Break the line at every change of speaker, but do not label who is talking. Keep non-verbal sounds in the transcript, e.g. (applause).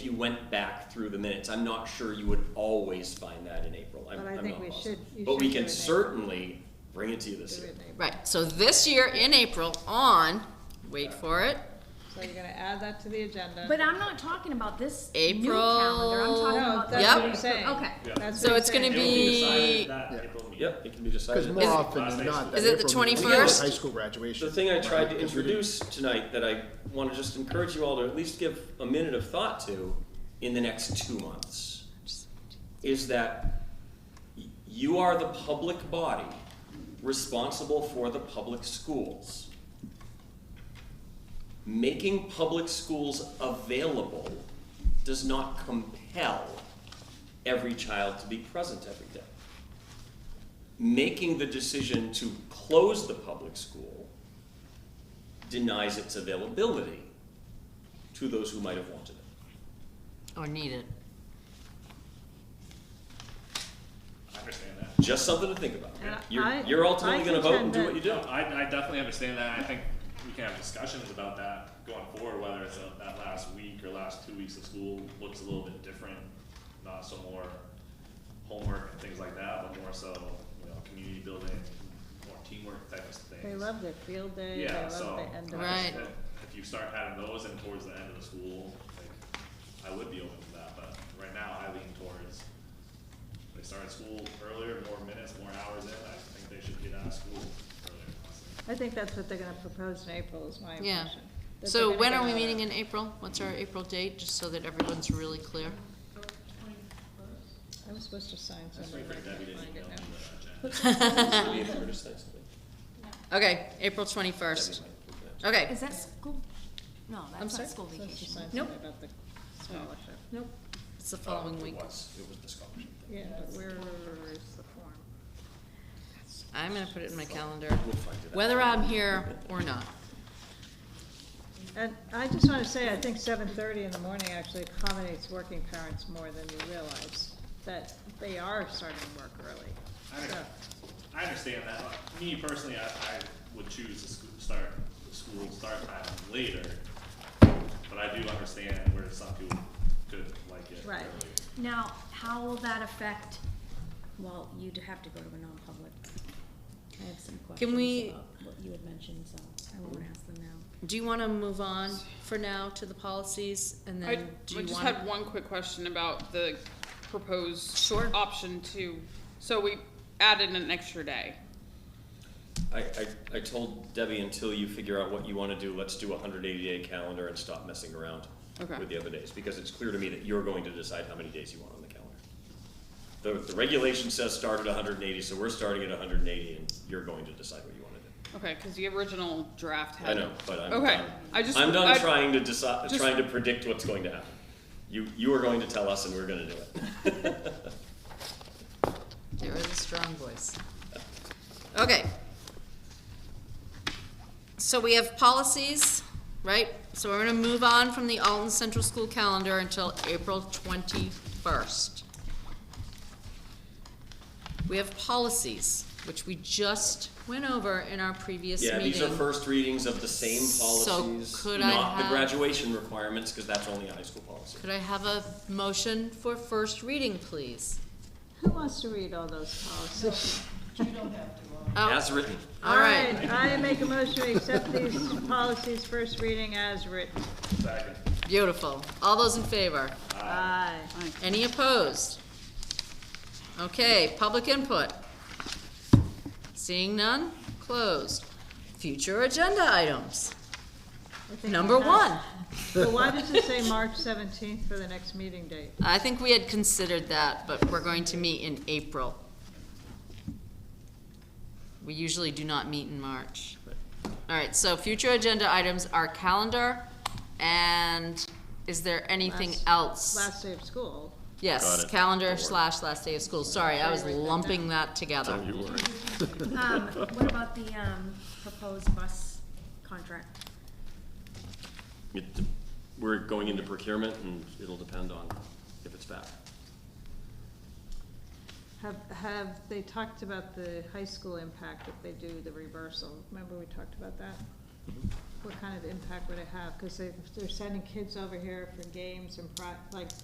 if you went back through the minutes, I'm not sure you would always find that in April. I'm-
But I
I'm
think
not
we
positive.
should- you
But we
should do it
can
in April.
certainly bring it to you this
Do
year.
it in April.
Right, so this year in April on, wait for it,
So you're gonna add that to the agenda.
But I'm not talking about this new
April-
calendar. I'm talking
No,
about the
that's what
Yep.
I'm saying.
Okay.
That's
So
what I'm
it's gonna
saying.
It'll be
be-
decided that
Yeah.
April meeting.
Yep, it can be
Because
decided.
more
Is it-
often than not, that
Is it the
April meeting is
21st?
High school graduation.
The thing I tried to
Right, 'cause we didn't-
introduce tonight that I want to just encourage you all to at least give a minute of thought to in the next two months is that y- you are the public body responsible for the public schools. Making public schools available does not compel every child to be present every day making the decision to close the public school denies its availability to those who might have wanted it.
or need it.
I understand that.
Just something to think about.
And I-
You're, you're ultimately
I
gonna vote and do what
contend
you do.
No, I, I definitely understand that. I think we can have discussions about that going forward, whether it's uh, that last week or last two weeks of school looks a little bit different. Not so more homework and things like that, but more so, you know, community building, more teamwork type of things.
They love their field day, they
Yeah,
love
so.
the end of.
I
it.
Right.
just- If you start having those in towards the end of the school, like, I would be open to that, but right now I lean towards, they started school earlier, more minutes, more hours in, I think they should get out of school earlier. honestly.
I think that's what they're gonna propose in April is my
Yeah.
impression. That
So
they're
when
gonna
are we
get out.
meeting in April? What's our April date, just so that everyone's really clear?
(laughs)
I was supposed to sign
Just
something.
wait
but
for
I
Debbie
can't
to
find
email
it
me
now.
the agenda.
Leave it or just say something.
Okay, April twenty-first.
That'd be my-
Okay,
Is that school? No, that's
sorry?
not school
Supposed to
vacation.
sign
Nope.
something about the scholarship.
nope, it's the following
It
week.
was- It was the scholarship.
Yeah, but where is the form?
I'm gonna put it in my calendar,
We'll find it out.
whether I'm here or not.
And I just wanna say, I think seven thirty in the morning actually accommodates working parents more than you realize, that they are starting work early.
I don't know. I understand that, but me personally, I, I would choose the school, start, the school start time later, but I do understand where some people could like it
Right.
earlier.
Now, how will that affect, well, you'd have to go to a non-public. I have some questions
we-
about what you had mentioned, so I won't ask them now.
Do you wanna move on for now to the policies and
I,
then do
I
you
just
wanna?
had one quick question about the proposed
Sure.
option two. So we added an extra day.
I, I, I told Debbie, until you figure out what you wanna do, let's do a hundred eighty day calendar and stop messing around
Okay.
with the other days, because it's clear to me that you're going to decide how many days you want on the calendar. The, the regulation says start at hundred and eighty, so we're starting at hundred and eighty, and you're going to decide what you wanna do.
Okay, because the original draft
I
had.
know, but I'm
Okay,
done.
I just-
I'm done
I-
trying to decide,
just-
trying to predict what's going to happen. You, you are going to tell us and we're gonna do it.
(laughs)
There is a strong voice. Okay. So we have policies, right? So we're gonna move on from the Alton Central School calendar until April twenty-first. We have policies, which we just went over in our previous
Yeah,
meeting.
these are first readings of the same
So
policies,
could I
not the
have-
graduation requirements, cause that's only a high school policy.
Could I have a motion for first reading, please?
Who wants to read all those policies?
Oh,
As written.
(laughs) all right.
I make a motion to accept these policies first reading as written.
Second.
Beautiful. All those in favor?
Aye.
Any opposed? Okay, public input. Seeing none, closed. Future agenda items.
I think
Number
we have-
one,
But why does it say March seventeenth for the next meeting date?
I think we had considered that, but we're going to meet in April. We usually do not meet in March. All right, so future agenda items are calendar, and is there anything
Last-
else?
Last day of school.
Got
Yes,
it.
calendar
Don't worry.
slash last day of school. Sorry, I was
Sorry, write that
lumping
down.
that together.
you were.
Um, what about the, um, proposed bus contract?
It de- We're going into procurement and it'll depend on if it's back.
Have, have they talked about the high school impact if they do the reversal? Remember we talked about that? what kind of impact would it have? Cause they, they're sending kids over here for games and pro, like,